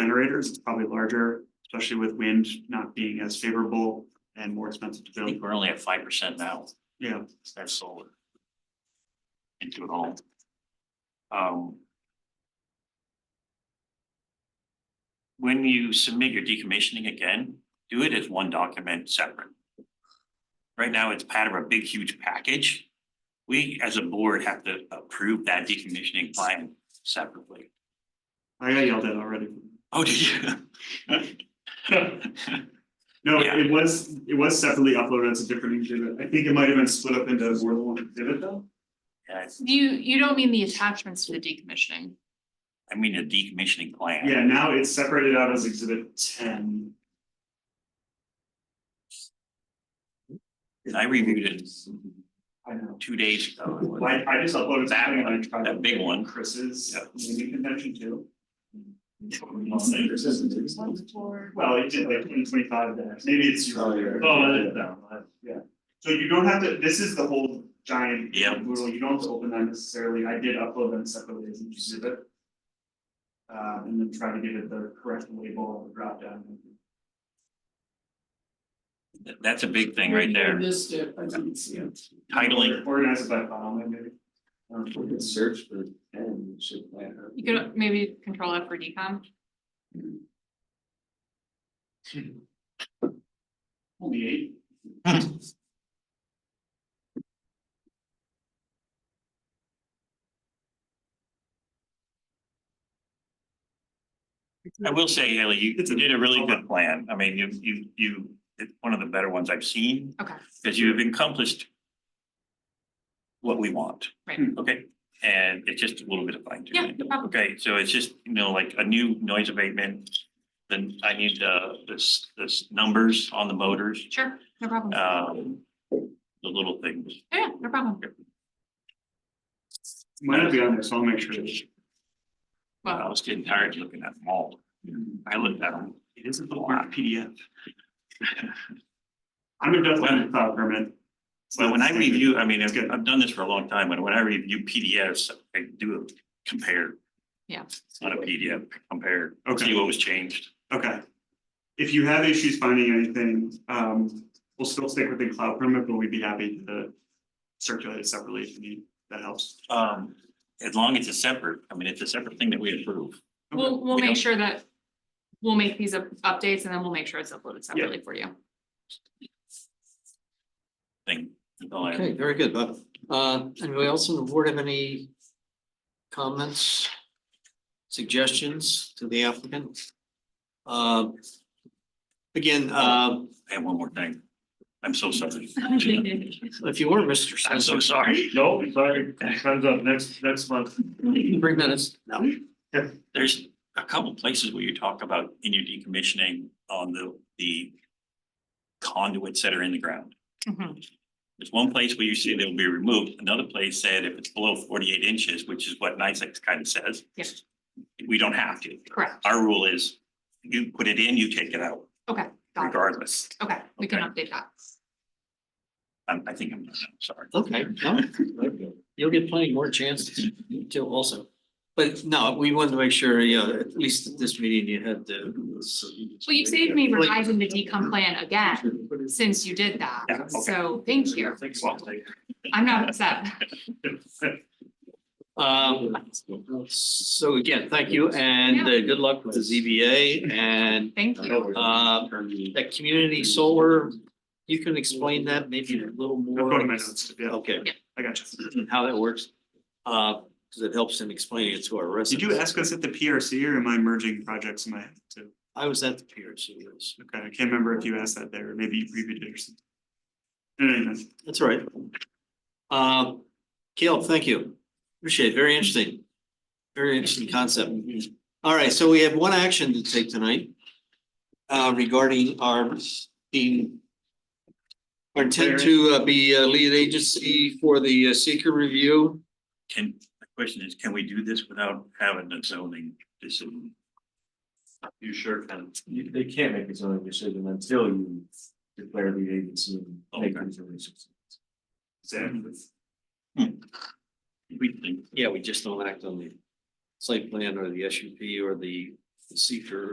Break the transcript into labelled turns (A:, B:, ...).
A: generators, it's probably larger, especially with wind not being as favorable and more expensive to
B: I
A: build.
B: think we're only at five percent now,
A: Yeah,
B: that's solar. Into it all. Um. When you submit your decommissioning again, do it as one document separate. Right now, it's part of a big huge package. We, as a board, have to approve that decommissioning plan separately.
A: I got yelled at already.
B: Oh, did you?
A: No,
B: Yeah.
A: it was, it was separately uploaded as a different exhibit. I think it might have been split up into more than one exhibit though.
B: Yeah,
C: You, you don't mean the attachments to the decommissioning.
B: I mean, a decommissioning plan.
A: Yeah, now it's separated out as exhibit ten.
B: I reviewed it
A: I know.
B: two days ago. It was-
A: I I just uploaded
B: That
A: something and I
B: one,
A: tried.
B: that big one.
A: Chris's,
B: Yeah.
A: naming convention too. I'll say Chris's and Dave's ones. Well, it did like twenty twenty five there, maybe it's your.
D: Oh, yeah.
A: Oh, that- that one, yeah. So you don't have to, this is the whole giant.
B: Yeah.
A: Rule, you don't have to open that necessarily, I did upload them separately as an exhibit. Uh, and then try to give it the correct label on the drop down.
B: Th- That's a big thing right there,
D: Missed it, I didn't see it.
B: titling,
A: Organize it by file, maybe. Um,
D: We could search for ten, it should land. up.
C: You could maybe control F for decom.
A: only eight.
B: I will say, Haley, you
A: It's a-
B: you did a really good plan, I mean, you, you, you, it's one of the better ones I've seen,
C: Okay,
B: because you have accomplished. What we want.
C: Right.
A: Hmm.
B: Okay, and it's just a little bit of fine
C: yeah,
B: tuning.
C: no problem.
B: Okay, so it's just, you know, like a new noise abatement, then I need the, this, this numbers on the motors,
C: Sure, no problem. Oh,
B: um, the little things.
C: Yeah, no problem.
A: Might not be on there, so I'll make sure.
B: I
C: Well,
B: was getting tired looking at them all, I looked at them.
A: It is a little weird PDF. I'm a definite file permit.
B: But when I review, I mean,
A: It's
B: I've,
A: good.
B: I've done this for a long time, and when I review PDFs, I do compare.
C: Yeah.
B: It's not a PDF, compare,
A: Okay.
B: see what was changed.
A: Okay. If you have issues finding anything, um, we'll still stick within cloud permit, but we'd be happy to circulate it separately if you need, that helps.
B: Um, as long as it's separate, I mean, it's a separate thing that we approve.
C: we'll, we'll
B: we don't-
C: make sure that, we'll make these up- updates and then we'll make sure it's uploaded separately for you.
B: Thing. That's all I have.
E: Okay, very good, Bob. Uh, anybody else on the board have any comments? Suggestions to the applicant? Uh, again, uh,
B: I have one more thing. I'm so sorry.
E: if you were Mr.
B: I'm so
E: Spencer,
B: sorry.
A: No, sorry, comes up next, next month.
E: three minutes. No.
B: There's a couple places where you talk about in your decommissioning on the, the conduits that are in the ground.
C: Mhm.
B: There's one place where you say they'll be removed, another place said if it's below forty-eight inches, which is what NICEX kind of says.
C: Yes.
B: We don't have to.
C: Correct,
B: Our rule is you put it in, you take it out
C: got it.
B: regardless.
C: Okay, we can
B: Okay.
C: update that.
B: I'm, I think I'm, I'm sorry.
E: Okay, no, you'll get plenty more chances to also. But no, we wanted to make sure, yeah, at least at this meeting you had the.
C: Well, you saved me revising the decom plan again, since you did
B: Yeah, okay.
C: that. So thank you.
B: Well,
C: I'm not upset.
E: Um, so again, thank you and uh, good luck with the ZBA and
C: Thank you.
E: uh, that community solar. You can explain that maybe a little
A: I'm
E: more.
A: going to my notes, yeah,
D: Oh.
E: Okay,
A: I got you.
E: and how that works, uh, because it helps in explaining it to our
A: Did
E: residents.
A: you ask us at the PRC or am I merging projects in my head too?
E: I was at the PRC, yes.
A: Okay, I can't remember if you asked that there, or maybe you previewed it or something. No, no, no,
E: That's all right. Uh, Caleb, thank you. Appreciate it. Very interesting. Very interesting concept. All right, so we have one action to take tonight. Uh, regarding our being. Our intent to uh, be a lead agency for the uh, seeker review.
B: Can, the question is, can we do this without having a zoning decision?
D: You sure can. You, they can't make a zoning decision until you declare the agency and make
B: Okay.
D: these releases.
A: exactly.
B: We think,
E: Yeah, we just don't act on the site plan or the S U P or the seeker